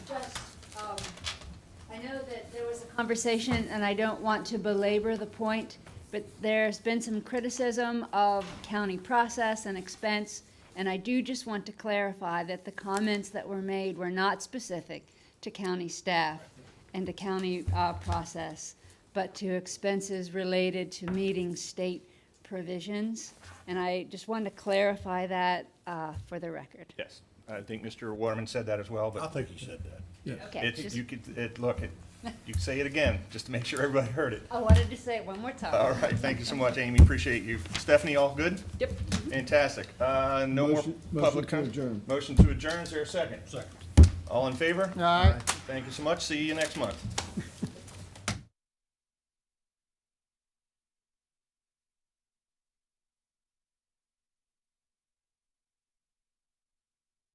um, conversation, and I don't want to belabor the point, but there's been some criticism of county process and expense, and I do just want to clarify that the comments that were made were not specific to county staff and to county uh, process, but to expenses related to meeting state provisions. And I just wanted to clarify that uh, for the record. Yes, I think Mr. Waterman said that as well, I but think he said that. Okay, it's, just- you could, it, look, it, you can say it again, just to make sure everybody heard it. I wanted to say it one more time. All right, thank you so much, Amy, appreciate you. Stephanie, all good? Yep. Fantastic. Uh, no more Motion- motion public. to com- adjourn. Motion to adjourn, is there a second? Second. All in favor? All right. Thank you so much, see you next month.